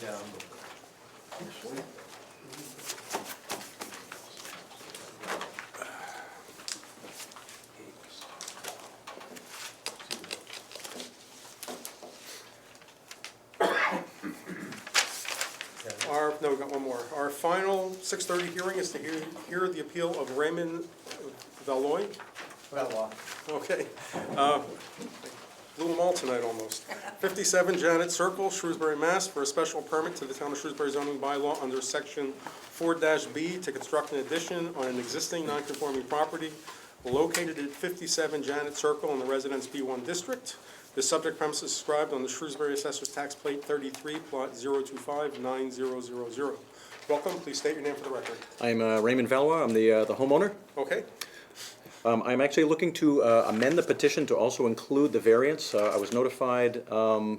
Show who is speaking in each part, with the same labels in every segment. Speaker 1: Yeah.
Speaker 2: Our, no, we got one more. Our final six thirty hearing is to hear, hear the appeal of Raymond Valoy.
Speaker 1: Well,
Speaker 2: Okay. Uh, Blew them all tonight almost. 57 Janet Circle, Shrewsbury, Mass. for a special permit to the Town of Shrewsbury zoning bylaw under Section 4-B to construct an addition on an existing nonconforming property located at 57 Janet Circle in the Residence B1 District. The subject premise is described on the Shrewsbury Assessor's Tax Plate 33, Plot 0259000. Welcome, please state your name for the record.
Speaker 3: I'm uh, Raymond Valois, I'm the, uh, the homeowner.
Speaker 2: Okay?
Speaker 3: Um, I'm actually looking to uh, amend the petition to also include the variance. Uh, I was notified um,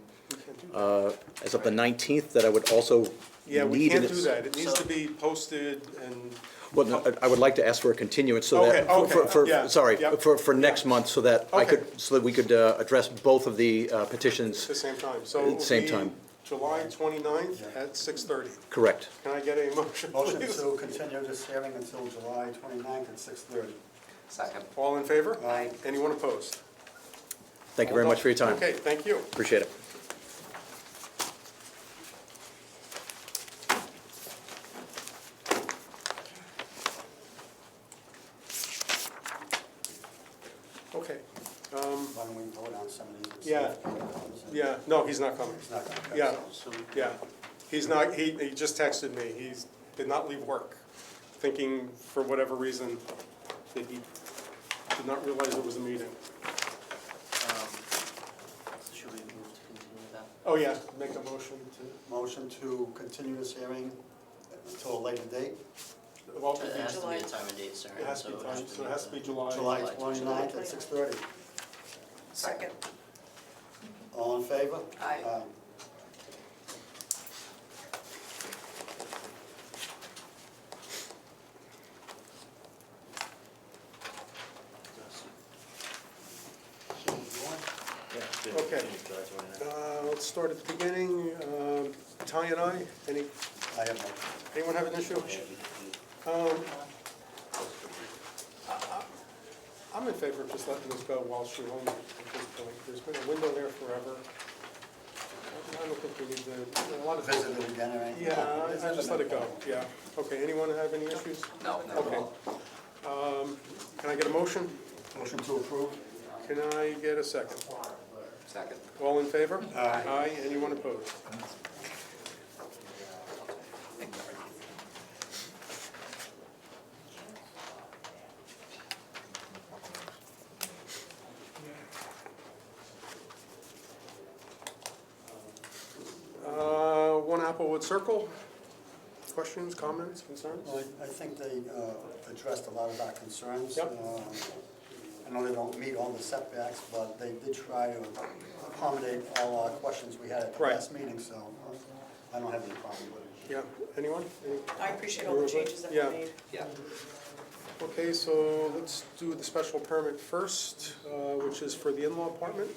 Speaker 3: uh, as of the 19th that I would also need.
Speaker 2: Yeah, we can't
Speaker 3: an-
Speaker 2: do that. It needs to be posted and
Speaker 3: Well, no, I- I would like to ask for a continuance so
Speaker 2: Okay,
Speaker 3: that, for-
Speaker 2: okay,
Speaker 3: for-
Speaker 2: yeah,
Speaker 3: for, sorry,
Speaker 2: yeah,
Speaker 3: for, for next month, so that I
Speaker 2: Okay.
Speaker 3: could, so that we could uh, address both of the uh, petitions,
Speaker 2: At the same time, so it will
Speaker 3: Same
Speaker 2: be
Speaker 3: time.
Speaker 2: July 29th at 6:30.
Speaker 3: correct?
Speaker 2: Can I get a motion,
Speaker 4: uh, Motion
Speaker 2: please?
Speaker 4: to continue this hearing until July 29th at 6:30.
Speaker 5: Second.
Speaker 2: All in favor?
Speaker 4: Aye.
Speaker 2: Anyone opposed?
Speaker 3: Thank you very much for your time.
Speaker 2: Okay, thank you.
Speaker 3: Appreciate it.
Speaker 2: Okay,
Speaker 4: Why don't we vote on some of these?
Speaker 2: Yeah. yeah, no, he's not coming.
Speaker 4: It's not gonna pass.
Speaker 2: Yeah, yeah. He's not, he, he just texted me. He's, did not leave work, thinking for whatever reason that he did not realize it was a meeting.
Speaker 5: Should we move to continue that?
Speaker 2: Oh, yeah, make a motion to,
Speaker 4: Motion to continue this hearing until a later date,
Speaker 2: well,
Speaker 5: It has
Speaker 2: it
Speaker 5: to be a time and date, sorry.
Speaker 2: has to be, time, so it has to be
Speaker 4: July
Speaker 5: July
Speaker 4: 29th at 6:30.
Speaker 5: Second.
Speaker 4: All in favor?
Speaker 5: Aye.
Speaker 2: Okay. Uh, Let's start at the beginning. Um, Ty and I, any,
Speaker 4: I have no,
Speaker 2: anyone have an issue? Um, I- I'm in favor of just letting this go while she owns it at this point. There's been a window there forever. I don't think we need to, a lot of.
Speaker 4: visit it again or anything?
Speaker 2: Yeah, I I just let it go, yeah. Okay, anyone have any issues?
Speaker 5: No, not at
Speaker 2: Okay.
Speaker 5: all.
Speaker 2: Um, Can I get a motion?
Speaker 4: Motion to approve?
Speaker 2: Can I get a second?
Speaker 5: Second.
Speaker 2: All in favor?
Speaker 4: Aye.
Speaker 2: Aye, anyone opposed? Uh, One Applewood Circle. Questions, comments, concerns?
Speaker 4: Well, I- I think they uh, addressed a lot of our concerns.
Speaker 2: Yep.
Speaker 4: Um, I know they don't meet all the setbacks, but they did try to accommodate all our questions we had at the
Speaker 2: Right.
Speaker 4: last meeting, so uh, I don't have any problem with it.
Speaker 2: Yeah, anyone? Any-
Speaker 6: I appreciate all the changes that were
Speaker 2: Yeah.
Speaker 6: made.
Speaker 5: Yeah.
Speaker 2: Okay, so let's do the special permit first, uh, which is for the in-law apartment.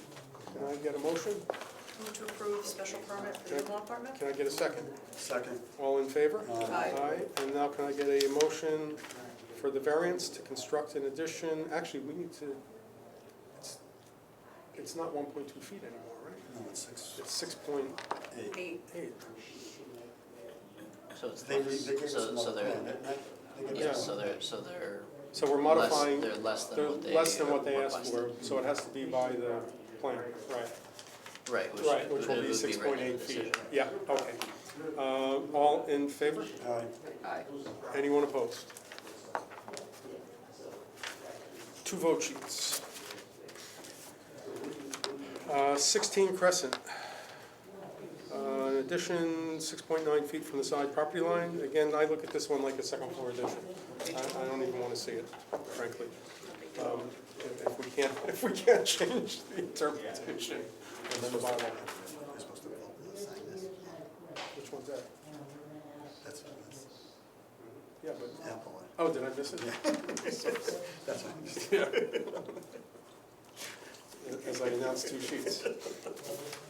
Speaker 2: Can I get a motion?
Speaker 6: Move to approve the special permit for the in-law apartment?
Speaker 2: Can I get a second?
Speaker 4: Second,
Speaker 2: All in favor?
Speaker 6: Aye.
Speaker 2: and now can I get a motion for the variance to construct an addition? Actually, we need to, it's, it's not one point two feet anymore, right?
Speaker 4: no, it's six,
Speaker 2: It's six point
Speaker 4: eight.
Speaker 6: Eight.
Speaker 2: eight.
Speaker 5: So it's
Speaker 4: They re- they gave
Speaker 5: less,
Speaker 4: us
Speaker 5: so, so
Speaker 4: another
Speaker 5: they're,
Speaker 4: plan, didn't they? They gave
Speaker 5: yeah,
Speaker 4: us
Speaker 5: so
Speaker 4: another-
Speaker 5: they're, so they're
Speaker 2: So we're
Speaker 5: less,
Speaker 2: modifying,
Speaker 5: they're less than
Speaker 2: they're
Speaker 5: what they.
Speaker 2: less than what they
Speaker 5: requested.
Speaker 2: asked for, so it has to be by the plan, right?
Speaker 5: Right, which.
Speaker 2: Right, which
Speaker 5: would-
Speaker 2: will be
Speaker 5: would written
Speaker 2: six
Speaker 5: in
Speaker 2: point
Speaker 5: the
Speaker 2: eight feet.
Speaker 5: decision.
Speaker 2: Yeah, okay. Uh, All in favor?
Speaker 4: Aye.
Speaker 5: Aye.
Speaker 2: Anyone opposed? Two vote sheets. Uh, 16 Crescent. Uh, An addition, 6.9 feet from the side property line. Again, I look at this one like a second floor addition. I I don't even want to see it, frankly. Um, If if we can't, if we can't change the interpretation of the bylaw.
Speaker 4: You're supposed to vote and sign this.
Speaker 2: Which one's that?
Speaker 4: That's, that's
Speaker 2: Yeah, but,
Speaker 4: Apple.
Speaker 2: oh, did I miss it?
Speaker 4: That's what
Speaker 2: As I announced two sheets.